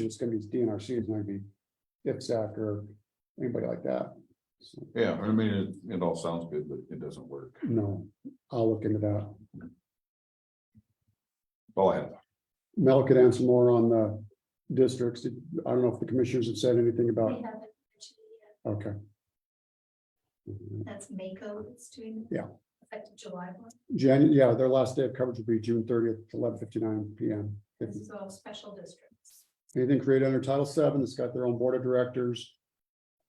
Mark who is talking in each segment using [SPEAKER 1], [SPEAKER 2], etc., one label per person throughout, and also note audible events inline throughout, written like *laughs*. [SPEAKER 1] It's gonna be DNRC is gonna be IPSAC or anybody like that. So,
[SPEAKER 2] Yeah, I mean, it, it all sounds good, but it doesn't work.
[SPEAKER 1] No, I'll look into that.
[SPEAKER 2] All I have.
[SPEAKER 1] Mel could answer more on the districts. I don't know if the commissioners have said anything
[SPEAKER 3] We
[SPEAKER 1] about,
[SPEAKER 3] haven't mentioned yet.
[SPEAKER 1] okay.
[SPEAKER 3] That's Mako that's doing.
[SPEAKER 1] Yeah.
[SPEAKER 3] Effective July one.
[SPEAKER 1] Jan, yeah, their last day of coverage will be June thirtieth, eleven fifty-nine PM.
[SPEAKER 3] This is all special districts.
[SPEAKER 1] Anything created under Title VII that's got their own board of directors.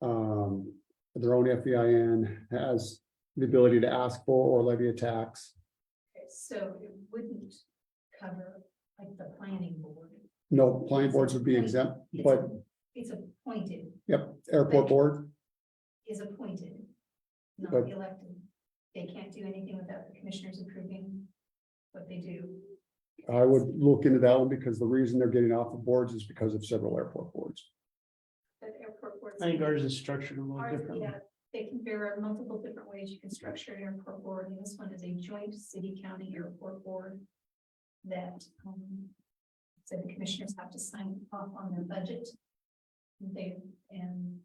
[SPEAKER 1] Um, their own FEIN has the ability to ask for or levy a tax.
[SPEAKER 3] Okay, So it wouldn't cover like the planning board.
[SPEAKER 1] No, planning boards would be exempt,
[SPEAKER 3] It's-
[SPEAKER 1] but
[SPEAKER 3] It's appointed,
[SPEAKER 1] yep, airport board,
[SPEAKER 3] is appointed, not
[SPEAKER 1] But-
[SPEAKER 3] elected. They can't do anything without the commissioners approving what they do.
[SPEAKER 1] I would look into that one because the reason they're getting off of boards is because of several airport boards.
[SPEAKER 3] But airport boards.
[SPEAKER 4] I think ours is structured a little
[SPEAKER 3] Ours,
[SPEAKER 4] differently.
[SPEAKER 3] yeah, they can, there are multiple different ways you can structure an airport board, and this one is a joint city county airport board. That, um, so the commissioners have to sign off on their budget. They, and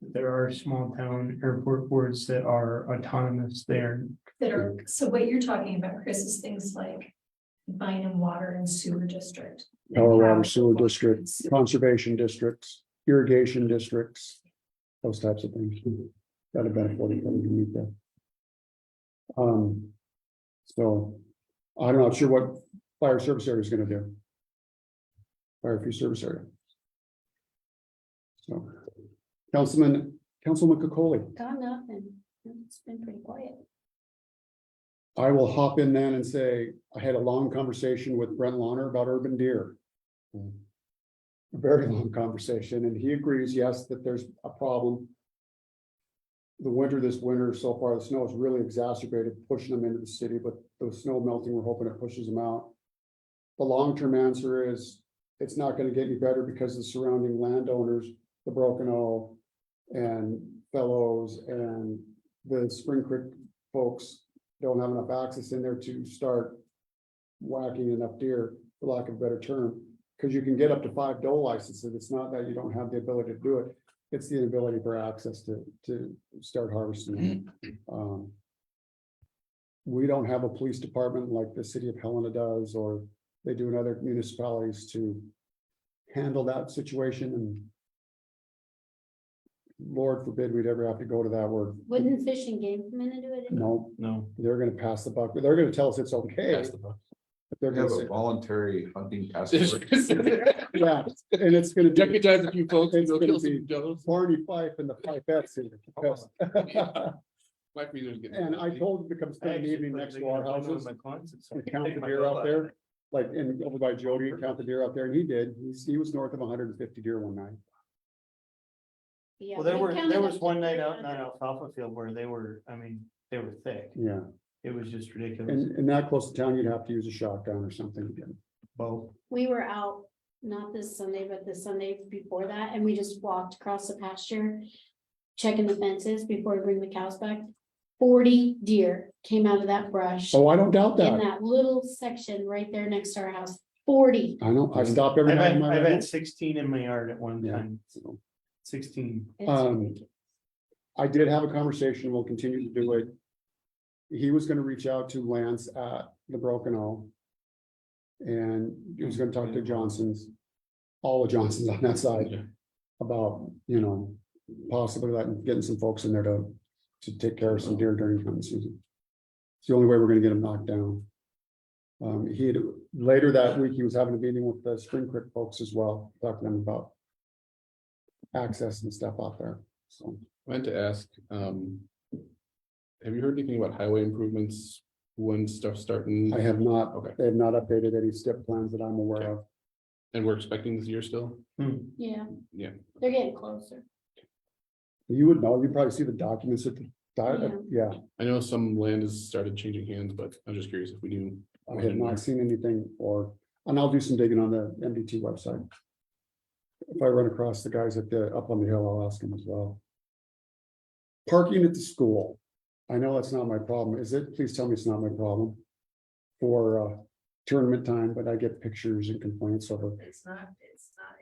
[SPEAKER 4] There are small town airport boards that are autonomous there.
[SPEAKER 3] that are, so what you're talking about, Chris, is things like. Bynum Water and Sewer District.
[SPEAKER 1] Power water sewer districts, conservation districts, irrigation districts, those types of things. That have been afforded from the meet that. Um, so I'm not sure what fire service area is gonna do. Fire free service area. So, Councilman, Councilman Cocoli.
[SPEAKER 3] Got nothing, it's been pretty quiet.
[SPEAKER 1] I will hop in then and say, I had a long conversation with Brent Lawner about urban deer. A very long conversation, and he agrees, yes, that there's a problem. The winter, this winter, so far, the snow has really exacerbated pushing them into the city, but the snow melting, we're hoping it pushes them out. The long-term answer is, it's not gonna get any better because the surrounding landowners, the Broken O and Fellows and the Spring Creek folks don't have enough access in there to start whacking enough deer, for lack of a better term, because you can get up to five doe licenses. It's not that you don't have the ability to do it. It's the inability for access to, to start harvesting. Um, We don't have a police department like the city of Helena does, or they do in other municipalities to handle that situation and Lord forbid we'd ever have to go to that word.
[SPEAKER 5] Wouldn't Fish and Game come in and do it?
[SPEAKER 1] No,
[SPEAKER 4] No.
[SPEAKER 1] they're gonna pass the buck, but they're gonna tell us it's okay. But They're
[SPEAKER 2] We
[SPEAKER 1] gonna
[SPEAKER 2] have a
[SPEAKER 1] say,
[SPEAKER 2] voluntary
[SPEAKER 6] *laughs*
[SPEAKER 2] hunting task force.
[SPEAKER 6] Deputize
[SPEAKER 1] yeah, and it's gonna be
[SPEAKER 6] a few folks and go kill some dogs.
[SPEAKER 1] Barney Fife and the Fifettes here. yes.
[SPEAKER 6] Might be there's
[SPEAKER 1] *laughs*
[SPEAKER 6] getting-
[SPEAKER 1] And I told him to come spend the evening next to our houses and
[SPEAKER 4] *laughs*
[SPEAKER 1] count the deer out there. Like, and over by Jody, and count the deer out there, and he did, he's, he was north of hundred and fifty deer one night.
[SPEAKER 5] Yeah,
[SPEAKER 4] Well, there
[SPEAKER 5] they
[SPEAKER 4] were,
[SPEAKER 5] counted
[SPEAKER 4] there
[SPEAKER 5] up
[SPEAKER 4] was
[SPEAKER 5] to
[SPEAKER 4] one night out in
[SPEAKER 5] 300.
[SPEAKER 4] that alfalfa field where they were, I mean, they were thick.
[SPEAKER 1] Yeah,
[SPEAKER 4] It was just ridiculous.
[SPEAKER 1] and, and that close to town, you'd have to use a shotgun or something again.
[SPEAKER 4] Well,
[SPEAKER 5] We were out, not this Sunday, but the Sunday before that, and we just walked across the pasture. Checking the fences before we bring the cows back. Forty deer came out of that brush in
[SPEAKER 1] Oh, I don't doubt that.
[SPEAKER 5] that little section right there next to our house, forty.
[SPEAKER 1] I know, I stop every
[SPEAKER 4] I've
[SPEAKER 1] night. in
[SPEAKER 4] had,
[SPEAKER 1] my
[SPEAKER 4] I've
[SPEAKER 1] road,
[SPEAKER 4] had sixteen in my yard at one
[SPEAKER 1] Yeah.
[SPEAKER 4] time,
[SPEAKER 1] so.
[SPEAKER 4] sixteen.
[SPEAKER 5] It's
[SPEAKER 1] Um,
[SPEAKER 5] ridiculous.
[SPEAKER 1] I did have a conversation, we'll continue to do it. He was gonna reach out to Lance at the Broken O. And he was gonna talk to Johnson's, all the Johnsons on that side about, you know, possibly letting, getting some folks in there to, to take care of some deer during hunting season. It's the only way we're gonna get them knocked down. Um, he had, later that week, he was having a meeting with the Spring Creek folks as well, talking to them about access and stuff out there, so.
[SPEAKER 6] I Meant to ask, um. Have you heard anything about highway improvements when stuff's starting
[SPEAKER 1] I have not,
[SPEAKER 6] Okay.
[SPEAKER 1] they have not updated any step plans that I'm aware of.
[SPEAKER 6] and we're expecting this year still?
[SPEAKER 4] Hmm.
[SPEAKER 5] Yeah.
[SPEAKER 6] yeah.
[SPEAKER 5] They're getting closer.
[SPEAKER 1] You would know, you probably see the documents at the, di- uh, yeah,
[SPEAKER 6] I know some land has started changing hands, but I'm just curious if we knew.
[SPEAKER 1] I have not seen anything or, and I'll do some digging on the MDT website. If I run across the guys at the, up on the hill, I'll ask them as well. Parking at the school, I know that's not my problem, is it? Please tell me it's not my problem. For uh tournament time, but I get pictures and complaints over,
[SPEAKER 3] It's not,